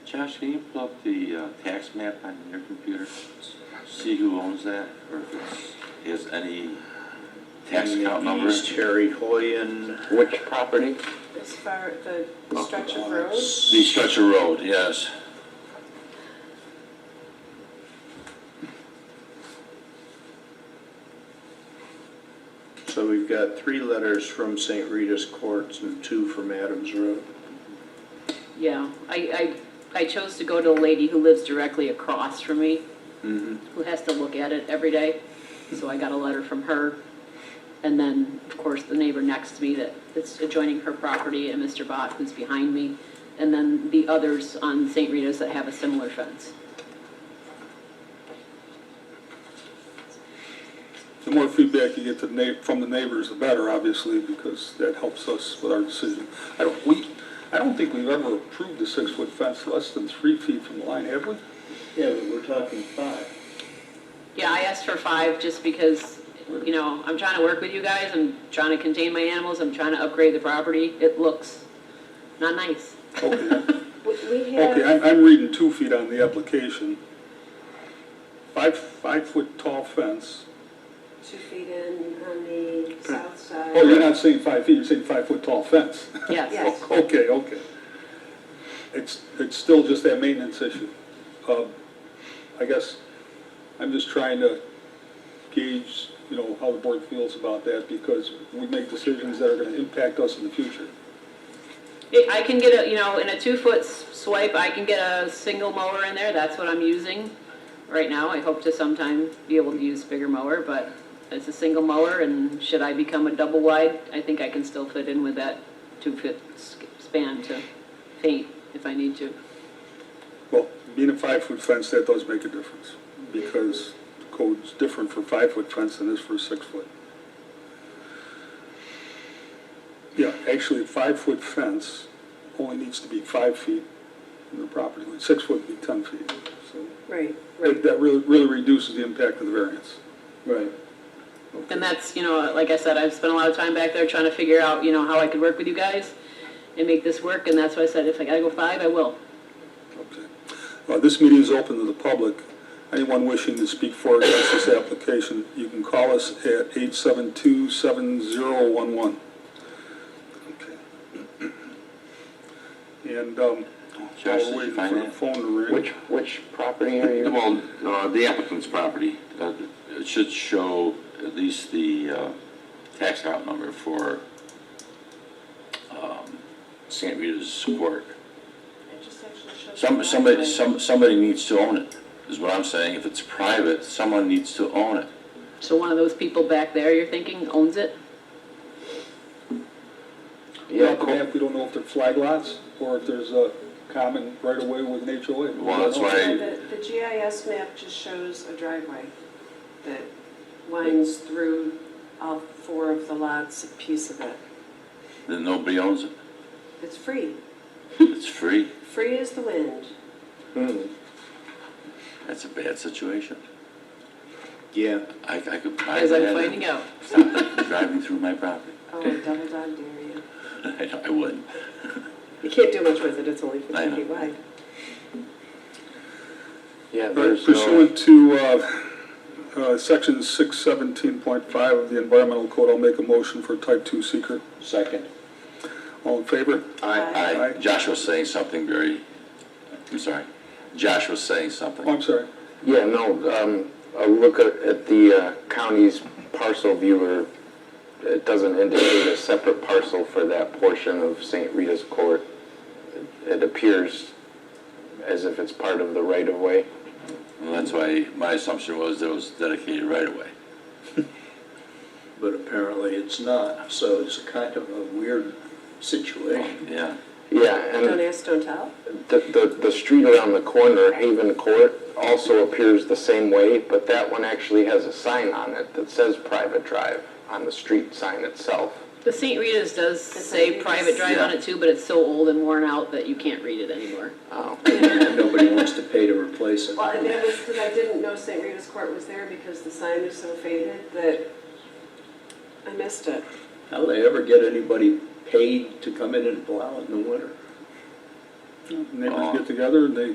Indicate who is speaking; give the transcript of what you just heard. Speaker 1: Josh, can you pull up the uh, tax map on your computer? See who owns that, or if it's, has any tax account number?
Speaker 2: East Harry Hoyen.
Speaker 3: Which property?
Speaker 4: As far as the stretch of road,
Speaker 1: The stretch of road, yes.
Speaker 2: So we've got three letters from St. Rita's Courts and two from Adams Road.
Speaker 5: Yeah, I, I, I chose to go to a lady who lives directly across from me, who has to look at it every day. So I got a letter from her. And then, of course, the neighbor next to me that, that's adjoining her property and Mr. Bott who's behind me. And then the others on St. Rita's that have a similar fence.
Speaker 6: The more feedback you get to na, from the neighbors, the better, obviously, because that helps us with our decision. I don't, we, I don't think we've ever approved a six-foot fence less than three feet from the line, have we?
Speaker 7: Yeah, but we're talking five.
Speaker 5: Yeah, I asked for five just because, you know, I'm trying to work with you guys. I'm trying to contain my animals. I'm trying to upgrade the property. It looks not nice.
Speaker 6: Okay,
Speaker 4: we- we
Speaker 6: okay,
Speaker 4: have,
Speaker 6: I'm, I'm reading two feet on the application. Five, five-foot tall fence.
Speaker 4: two feet in on the south side.
Speaker 6: Oh, you're not saying five feet, you're saying five-foot tall fence.
Speaker 5: Yes.
Speaker 4: Yes.
Speaker 6: Okay, okay. It's, it's still just that maintenance issue. Um, I guess I'm just trying to gauge, you know, how the board feels about that because we make decisions that are going to impact us in the future.
Speaker 5: It- I can get a, you know, in a two-foot s- swipe, I can get a single mower in there, that's what I'm using right now. I hope to sometime be able to use bigger mower, but it's a single mower, and should I become a double wide, I think I can still fit in with that two-foot s- span to paint if I need to.
Speaker 6: Well, being a five-foot fence, that does make a difference because the code's different for five-foot fence than it is for six-foot. Yeah, actually, a five-foot fence only needs to be five feet from the property line. Six-foot would be 10 feet, so.
Speaker 4: Right,
Speaker 6: That
Speaker 4: right.
Speaker 6: that really, really reduces the impact of the variance.
Speaker 2: Right.
Speaker 5: And that's, you know, like I said, I've spent a lot of time back there trying to figure out, you know, how I could work with you guys and make this work, and that's why I said, if I gotta go five, I will.
Speaker 6: Okay. Uh, This meeting is open to the public. Anyone wishing to speak for or against this application, you can call us at 872-7011. Okay. And um,
Speaker 1: Josh,
Speaker 6: I'll
Speaker 1: did
Speaker 6: wait
Speaker 1: you
Speaker 6: for
Speaker 1: find
Speaker 6: the
Speaker 1: that?
Speaker 6: phone to ring.
Speaker 3: Which, which property are you?
Speaker 1: Well, uh, the applicant's property, uh, it should show at least the uh, tax account number for um, St. Rita's Court.
Speaker 4: It just actually shows
Speaker 1: Some,
Speaker 4: the
Speaker 1: somebody,
Speaker 4: driveway.
Speaker 1: some, somebody needs to own it, is what I'm saying. If it's private, someone needs to own it.
Speaker 5: So one of those people back there, you're thinking, owns it?
Speaker 6: Yeah,
Speaker 3: Yeah,
Speaker 6: the map, we don't know if they're flag lots or if there's a common right-of-way with an HOA.
Speaker 1: Well, that's why-
Speaker 4: Yeah, The the GIS map just shows a driveway that winds through all four of the lots, a piece of it.
Speaker 1: Then nobody owns it.
Speaker 4: It's free,
Speaker 1: It's free.
Speaker 4: free as the wind.
Speaker 1: That's a bad situation.
Speaker 2: Yeah.
Speaker 1: I, I could buy
Speaker 5: As
Speaker 1: that.
Speaker 5: I'm finding out.
Speaker 1: Stop driving through my property.
Speaker 4: Oh, double dog dare you.
Speaker 1: I, I wouldn't.
Speaker 4: You can't do much with it, it's only
Speaker 1: I
Speaker 4: fifty
Speaker 1: know.
Speaker 4: feet wide.
Speaker 3: yeah, there's no,
Speaker 6: Pursuant to uh, uh, Section 617.5 of the Environmental Code, I'll make a motion for type 2 seeker.
Speaker 2: Second.
Speaker 6: All in favor?
Speaker 4: Aye.
Speaker 1: I, Josh was saying something very, I'm sorry. Josh was saying something.
Speaker 6: Oh, I'm sorry.
Speaker 3: yeah, no, um, a look at, at the uh, county's parcel viewer, it doesn't indicate a separate parcel for that portion of St. Rita's Court. It- It appears as if it's part of the right-of-way.
Speaker 1: Well, that's why my assumption was that it was dedicated right away.
Speaker 2: But apparently it's not, so it's kind of a weird situation.
Speaker 1: Yeah.
Speaker 3: Yeah, and.
Speaker 4: Don't ask, don't tell.
Speaker 3: The, the, the street around the corner, Haven Court, also appears the same way, but that one actually has a sign on it that says private drive on the street sign itself.
Speaker 5: The St. Rita's does say
Speaker 4: Rita's.
Speaker 5: private drive on it too, but it's so old and worn out that you can't read it anymore.
Speaker 3: Oh,
Speaker 2: And Nobody wants to pay to replace it.
Speaker 4: Well, and that was because I didn't know St. Rita's Court was there because the sign was so faded that I missed it.
Speaker 2: How do they ever get anybody paid to come in and plow it in the winter?
Speaker 6: neighbors get together and they